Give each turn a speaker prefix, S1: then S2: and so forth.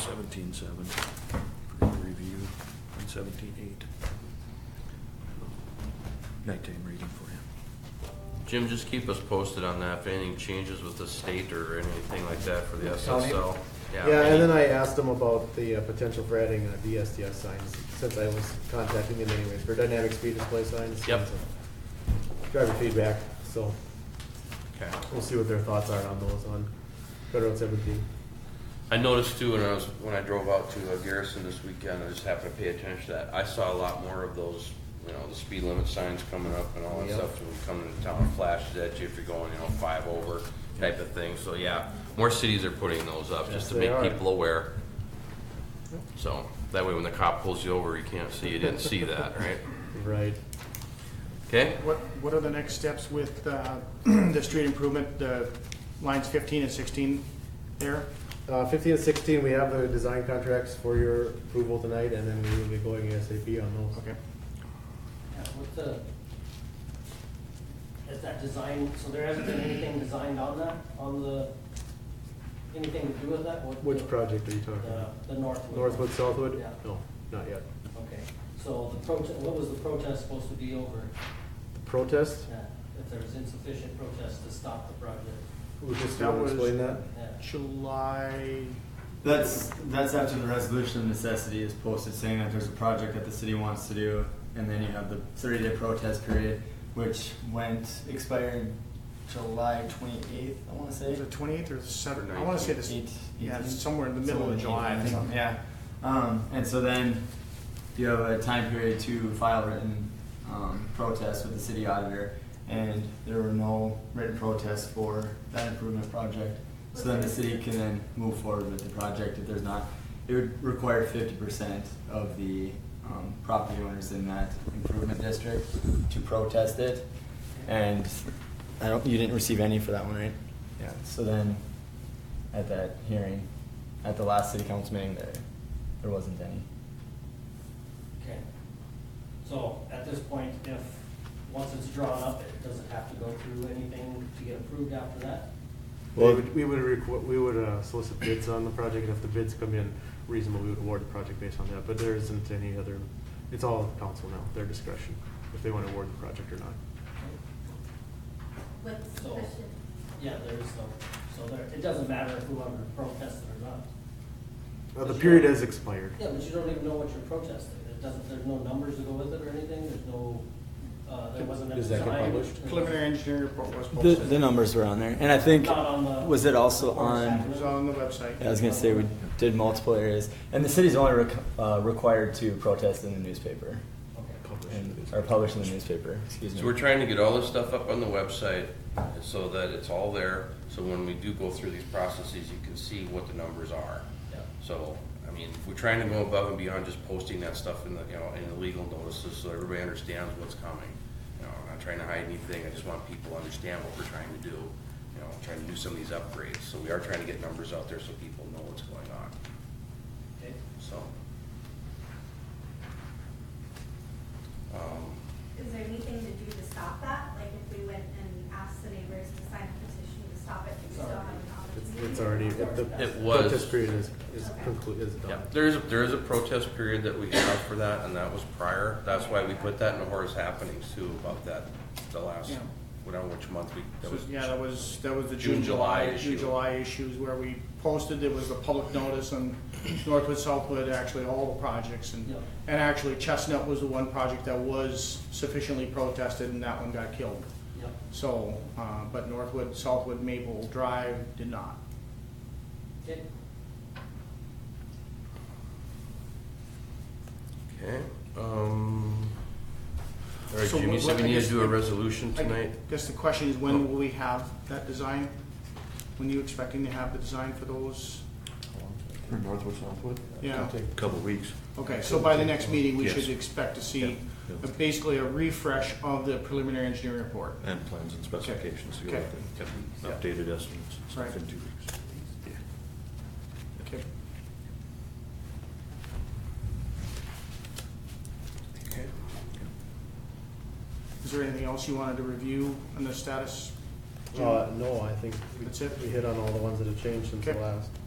S1: seventeen seven, review, and seventeen eight. Nighttime reading for you.
S2: Jim, just keep us posted on that, if anything changes with the state or anything like that for the SSL.
S3: Yeah, and then I asked him about the uh, potential for adding uh, DSDS signs, since I was contacting him anyways, for dynamic speed display signs. uh,
S2: Yep.
S3: Driver feedback, so
S2: Okay.
S3: we'll see what their thoughts are on those on Federal Seventeen.
S2: I noticed too, when I was, when I drove out to uh, Garrison this weekend, I just happened to pay attention to that, I saw a lot more of those, you know, the speed limit signs coming up and all that
S3: Yep.
S2: stuff, when you come into town, it flashes at you if you're going, you know, five over type of thing, so yeah, more cities are putting those up,
S3: Yes,
S2: just to
S3: they
S2: make
S3: are.
S2: people aware. So, that way when the cop pulls you over, you can't see, you didn't see that, right?
S3: Right.
S2: Okay?
S4: What, what are the next steps with uh, the street improvement, the lines 15 and 16 there?
S3: Uh, fifteen and sixteen, we have the design contracts for your approval tonight, and then we will be going ASAP on those.
S4: Okay.
S5: Yeah, what's the, is that design, so there hasn't been anything designed on that, on the, anything to do with that? What-
S3: Which project are you talking
S5: The,
S3: about?
S5: the
S4: Uh,
S5: Northwood.
S3: Northwood, Southwood?
S5: Yeah.
S3: No, not yet.
S5: Okay, so the protest, what was the protest supposed to be over?
S3: Protest?
S5: Yeah, If there was insufficient protest to stop the project?
S3: Would you just
S4: That
S3: wanna
S4: was-
S3: explain that?
S5: Yeah.
S4: July,
S6: That's that's after the resolution of necessity is posted, saying that there's a project that the city wants to do, and then you have the 30-day protest period, which went expired July 28th, I want to say.
S4: is it 28th or the 7th? I want to say this,
S6: Eight-
S4: yeah, it's
S6: eighteen?
S4: somewhere in the middle of
S6: Somewhere
S4: July.
S6: in
S4: I
S6: the eighteen or
S4: think.
S6: something, Yeah, um, and so then you have a time period to file written um, protests with the city auditor, and there were no written protests for that improvement project. So then the city can then move forward with the project if there's not, it would require fifty percent of the um, property owners in that improvement district to protest it. And I don't, you didn't receive any for that one, right? Yeah, so then at that hearing, at the last city council meeting, there, there wasn't any.
S5: Okay. So at this point, if, once it's drawn up, it doesn't have to go through anything to get approved after that?
S3: We would, we would, requ- we would uh, solicit bids on the project, and if the bids come in reasonable, we would award the project based on that, but there isn't any other, it's all up to council now, their discretion, if they want to award the project or not.
S7: What's the
S5: So-
S7: question?
S5: Yeah, there is no, so there, it doesn't matter whoever protested or not.
S3: Uh, The period has expired.
S5: Yeah, but you don't even know what you're protesting. It doesn't, there's no numbers to go with it or anything, there's no, uh, there wasn't a
S3: Does that get
S5: design.
S3: published?
S4: Preliminary engineering report was
S6: The,
S4: posted.
S6: the numbers were on there, and I think,
S5: Not on the-
S6: was it also
S4: It
S6: on,
S4: was on the website.
S6: I was gonna say, we did multiple areas, and the city's only rec- uh, required to protest in the newspaper,
S5: Okay.
S6: and, or publish in the newspaper, excuse me.
S2: So we're trying to get all this stuff up on the website so that it's all there, so when we do go through these processes, you can see what the numbers are.
S5: Yeah.
S2: So, I mean, we're trying to go above and beyond just posting that stuff in the, you know, in the legal notices, so everybody understands what's coming. You know, I'm not trying to hide anything, I just want people to understand what we're trying to do, you know, trying to do some of these upgrades. So we are trying to get numbers out there so people know what's going on,
S5: Okay.
S2: so. Um,
S7: Is there anything to do to stop that? Like if we went and asked the neighbors to sign a petition to stop it, do we still have an
S3: It's-
S7: opportunity?
S3: It's already, the
S2: It
S3: the
S2: was.
S3: protest period is, is concluded, is
S2: Yeah,
S3: done.
S2: there is, a- there is a protest period that we have for that, and that was prior. That's why we put that in the Horace Happenings too, about that, the last,
S4: Yeah.
S2: whatever, which month we, that
S4: So,
S2: was.
S4: Yeah, that was, that was the
S2: June,
S4: June,
S2: July
S4: July, June,
S2: issue.
S4: July issues where we posted, it was the public notice on Northwood, Southwood, actually all the projects and,
S5: Yeah.
S4: and actually Chestnut was the one project that was sufficiently protested and that one got killed.
S5: Yep.
S4: So, uh, but Northwood, Southwood, Maple Drive did not.
S5: Okay.
S2: Okay, um, all right,
S4: So
S2: Jimmy,
S4: what-
S2: so we
S4: I
S2: need to
S4: guess-
S2: do a resolution
S4: I
S2: tonight.
S4: Guess the question is,
S2: Oh.
S4: when will we have that design? When are you expecting to have the design for those?
S1: Northwood, Southwood?
S4: Yeah.
S1: Couple weeks.
S4: Okay, so by the next meeting, we
S1: Yes.
S4: should expect to see
S1: Yeah, yeah.
S4: basically a refresh of the preliminary engineering report.
S1: And plans and specifications, the
S4: Okay.
S1: other thing, Yep. updated estimates, and stuff
S4: Right.
S1: in two weeks. Yeah.
S4: Okay.
S2: Okay.
S4: Is there anything else you wanted to review on the status? Jim?
S3: Uh, no, I think we-
S4: That's it?
S3: we hit on all the ones that have changed since the
S4: Okay.
S3: last.